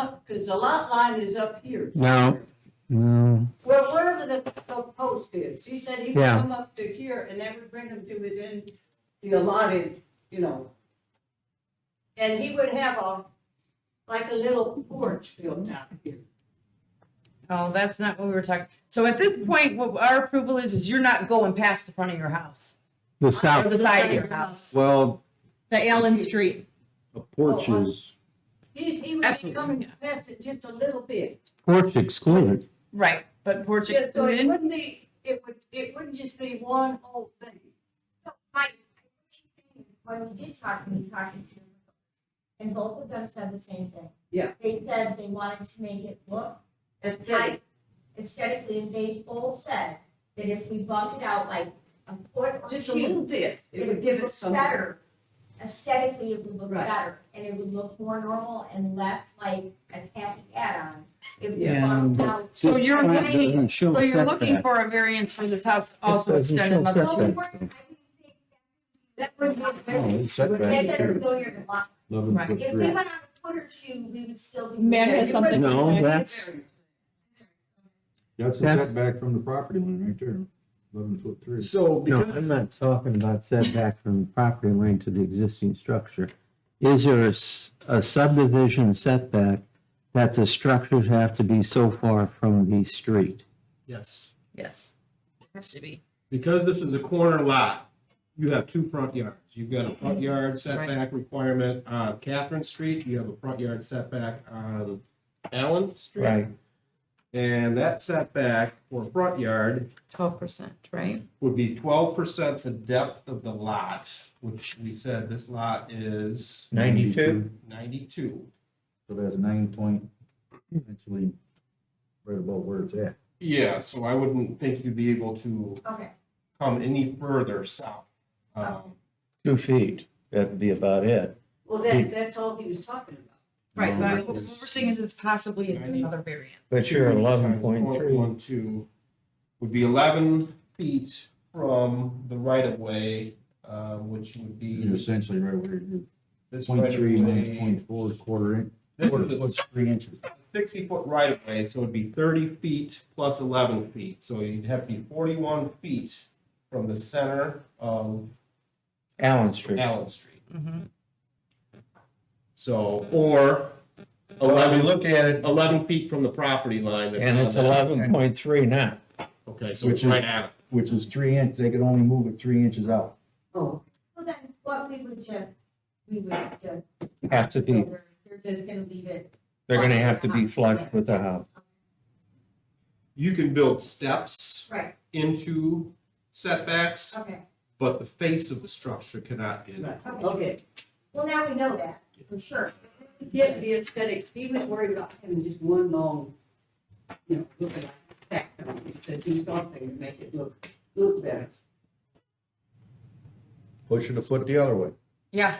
up, because the lot line is up here. No. No. Well, wherever the f- post is, he said he would Yeah. come up to here and that would bring him to within the allotted, you know. And he would have a, like a little porch built out here. Oh, that's not what we were talking. So at this point, what our approval is, is you're not going past the front of your house The or south, the side of your house. Well, The Allen Street. a porch Oh, I- is, He's, he would be Absolutely, coming yeah. past it just a little bit. porch excluded. Right, but porch Yeah, So it excluded. wouldn't be, it would, it wouldn't just be one whole thing. So my, what she's saying is, when we did talk, we talked to two and both of them said the same thing. Yeah. They said they wanted to make it look high aesthetically, and they both said that if we bumped it out like a foot or Just a two, little bit, it it would give it look some. Better, aesthetically, it would look Right. better, and it would look more normal and less like a tacky add-on. If we Yeah, bumped but- out So you're That looking, doesn't show so you're looking setback. for a variance for this house to also doesn't extend show another. setback. Well, we weren't- I didn't think That would be uh, Oh, very. it's set back. That doesn't go near the lot. eleven Right. foot If three. we went on a foot or two, we would still be. Mary It has something wouldn't to be No, very- that's- That's a Yeah. setback from the property line right there, eleven foot three. So No, I'm because, not talking about setback from the property line to the existing structure. Is there a s- a subdivision setback that the structures have to be so far from the street? yes, Yes. Has to be. because this is a corner lot, you have two front yards. You've got a Mm-hmm. front yard setback requirement on Catherine Street, you have a front yard setback on Allen Street. And that setback or front yard Twelve percent, right? would be twelve percent the depth of the lot, which we said this lot is Ninety-two. ninety-two. So that's nine point, actually, right about where it's at. Yeah, so I wouldn't think you'd be able to Okay. come any further south. Um, Two feet, that'd be about it. Well, that, that's all he was talking about. Right, No, but what we're it's- saying is it's possibly is another variance. But two times 0.12 would be eleven feet from the right of way, uh, which would be You're this essentially right where you're, right point of three minus way. point four, quarter inch. This quarter is the foot, Three inches. sixty foot right of way, so it'd be thirty feet plus eleven feet, so you'd have to be forty-one feet from the center of Allen Street. Allen Street. So, or eleven, look at it, eleven feet from the property line. that's on that. eleven point three now. Okay, so it's Which is- right at, it. which is three inch, they could only move it three inches out. Oh, So then what we would just, we would just, Have to be, they're just gonna leave it. they're gonna have to be flush with the house. you can build steps Right, into setbacks, okay. but the face of the structure cannot get. right, okay. Well, now we know that, for sure. Yeah, the aesthetic, he was worried about having just one long, you know, look at that, to do something to make it look, look better. Push it a foot the other way. Yeah,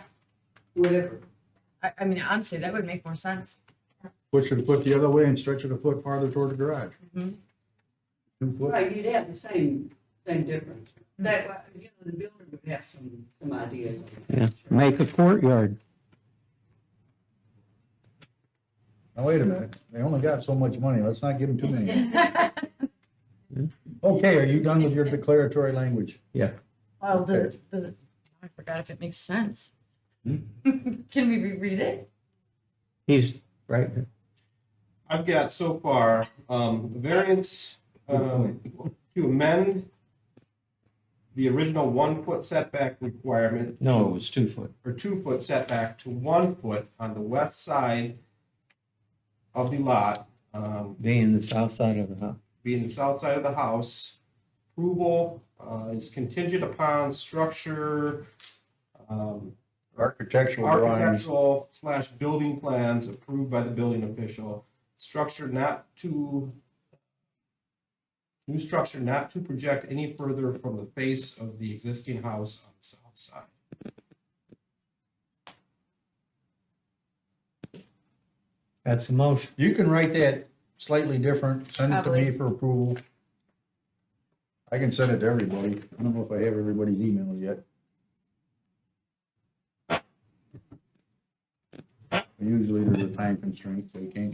whatever. I, I mean, honestly, that would make more sense. Push it a foot the other way and stretch it a foot farther toward the garage. Mhm. Two foot. Right, you'd have the same, same difference. That, way, you know, the builder would have some, some ideas. Yeah, make a courtyard. Now, wait a minute, they only got so much money, let's not give them too many. Okay, are you done with your declaratory language? Well, does it, does it, I forgot if it makes sense. Hmm. Can we reread it? He's right. I've got so far, um, variance, um, to amend the original one foot setback requirement No, it was two foot. or two foot setback to one foot on the west side of the lot, um, Being the south side of the house. being the south side of the house. Approval, uh, is contingent upon structure, um, Architectural drawings, architectural slash building plans approved by the building official. Structure not to, new structure not to project any further from the face of the existing house on the south side. That's the motion. you can write that slightly different, send it to me for approval. I can send it to everybody, I don't know if I have everybody's email yet. Usually there's a time constraint, so you can't